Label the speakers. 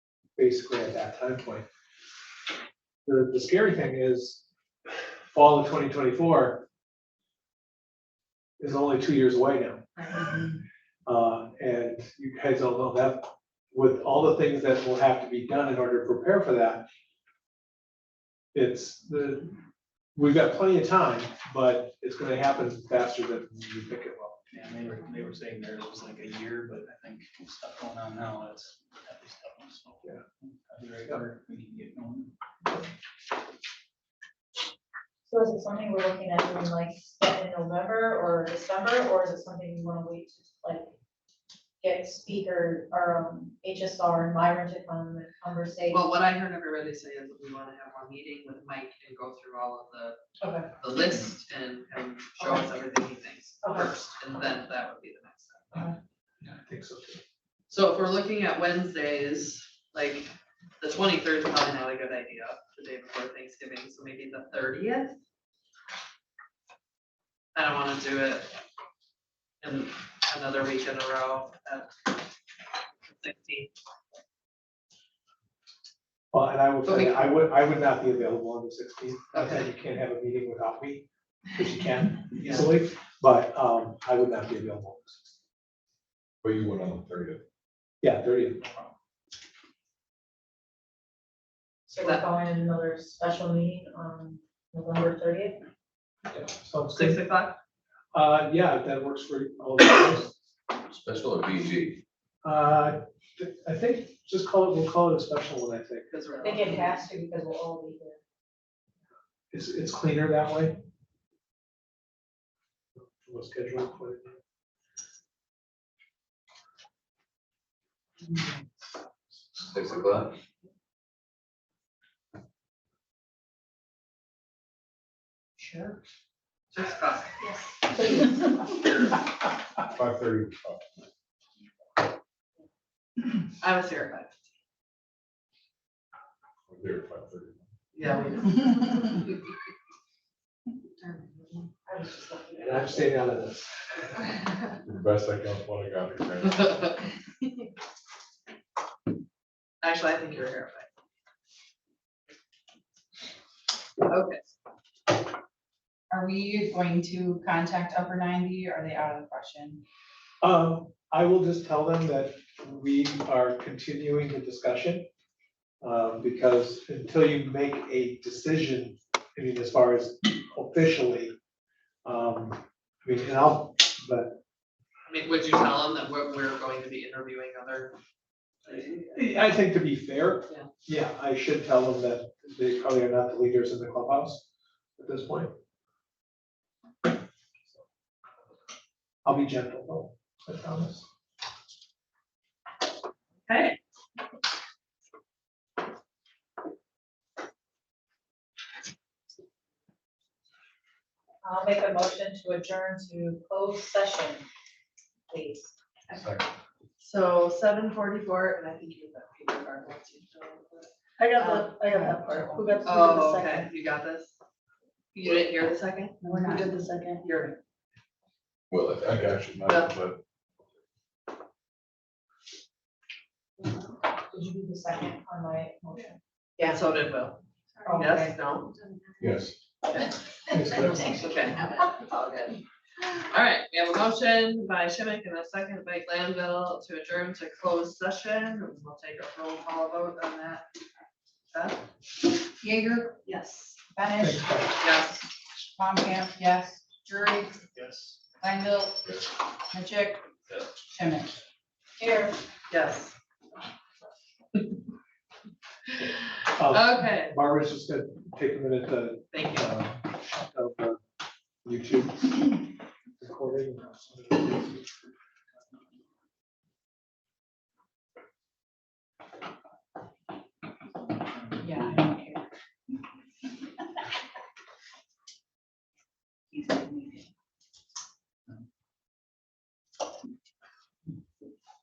Speaker 1: basically at that time point. The, the scary thing is, fall of twenty twenty-four is only two years away now.
Speaker 2: Um,
Speaker 1: Uh, and you guys all know that with all the things that will have to be done in order to prepare for that. It's the, we've got plenty of time, but it's gonna happen faster than you think it will.
Speaker 3: Yeah, they were, they were saying there was like a year, but I think with stuff going on now, that's. that was tough, so.
Speaker 1: Yeah.
Speaker 3: That'd be right where we can get going.
Speaker 2: So is it something we're looking at in like step in November or December, or is it something you wanna wait to like get speaker or um, HSR and Myron to come and conversate?
Speaker 4: Well, what I heard everybody say is that we wanna have one meeting with Mike and go through all of
Speaker 2: Okay,
Speaker 4: the, the list and him show us everything he thinks
Speaker 2: Okay.
Speaker 4: first, and then that would be the next step.
Speaker 1: Yeah, I think so too.
Speaker 4: So if we're looking at Wednesdays, like, the twenty-third is probably not a good idea, the day before Thanksgiving, so maybe the thirtieth? I don't wanna do it in another week in a row at sixteen.
Speaker 1: Well, and I will tell you,
Speaker 4: Okay.
Speaker 1: I would, I would not be available on the sixteenth. You can't have a meeting without me, which you can easily, but, um, I would not be available.
Speaker 5: But you went on the thirtieth.
Speaker 1: Yeah, thirty.
Speaker 2: so we're calling in another special meeting on November thirtieth?
Speaker 1: yeah, Sounds
Speaker 4: Six
Speaker 1: good.
Speaker 4: o'clock,
Speaker 1: Uh, yeah, if that works for all of us.
Speaker 5: Special or BG?
Speaker 1: Uh, th- I think, just call it, we'll call it a special one, I think.
Speaker 4: because we're.
Speaker 2: I think it has to because we'll all be here.
Speaker 1: It's, it's cleaner that way. We'll schedule it for it.
Speaker 5: Six o'clock.
Speaker 4: Sure. Six o'clock,
Speaker 5: Five thirty.
Speaker 4: I was here at five,
Speaker 5: There, five thirty.
Speaker 4: yeah. we-
Speaker 2: I was just looking at
Speaker 1: And I'm staying out of this.
Speaker 5: Best I can, what I got. okay.
Speaker 4: Actually, I think you're here, but. Okay,
Speaker 6: Are we going to contact Upper Ninety? Are they out of the question?
Speaker 1: Um, I will just tell them that we are continuing the discussion. Uh, because until you make a decision, I mean, as far as officially, um, I mean, and I'll, but,
Speaker 4: I mean, would you tell them that we're, we're going to be interviewing other?
Speaker 1: I think to be fair,
Speaker 4: Yeah.
Speaker 1: yeah, I should tell them that they probably are not the leaders in the clubhouse at this point. I'll be gentle, though, I promise.
Speaker 4: Okay.
Speaker 2: I'll make a motion to adjourn to closed session, please.
Speaker 5: Second.
Speaker 4: So seven forty-four, and I think you have that paper card. once you fill it out.
Speaker 7: I
Speaker 6: Um,
Speaker 7: got the, I got that part. Who got, who did the
Speaker 4: Oh,
Speaker 7: second?
Speaker 4: okay, you got this? You didn't hear the second?
Speaker 6: We're
Speaker 7: Who
Speaker 6: not.
Speaker 7: did the second?
Speaker 4: You're,
Speaker 5: Well, I think I should know, but
Speaker 2: Did you do the second on my motion?
Speaker 4: yeah, so did Will.
Speaker 2: Oh,
Speaker 4: Yes, no?
Speaker 5: yes.
Speaker 4: Okay. All right, we have a motion by Shimmick and a second by Glanville to adjourn to closed session. We'll take a roll call vote on that. Beth?
Speaker 6: Jaeger,
Speaker 7: Yes.
Speaker 1: Thanks,
Speaker 6: Benish,
Speaker 1: Pat.
Speaker 4: Yes.
Speaker 6: Palm Camp, yes. Drury,
Speaker 3: Yes.
Speaker 6: Langville,
Speaker 5: Yes.
Speaker 6: Majic,
Speaker 3: Yes.
Speaker 6: Shimmick.
Speaker 2: Here.
Speaker 4: Yes.
Speaker 1: Um,
Speaker 4: Okay,
Speaker 1: Barbara's just gonna take a minute to
Speaker 4: thank you.
Speaker 1: uh, of the YouTube recording.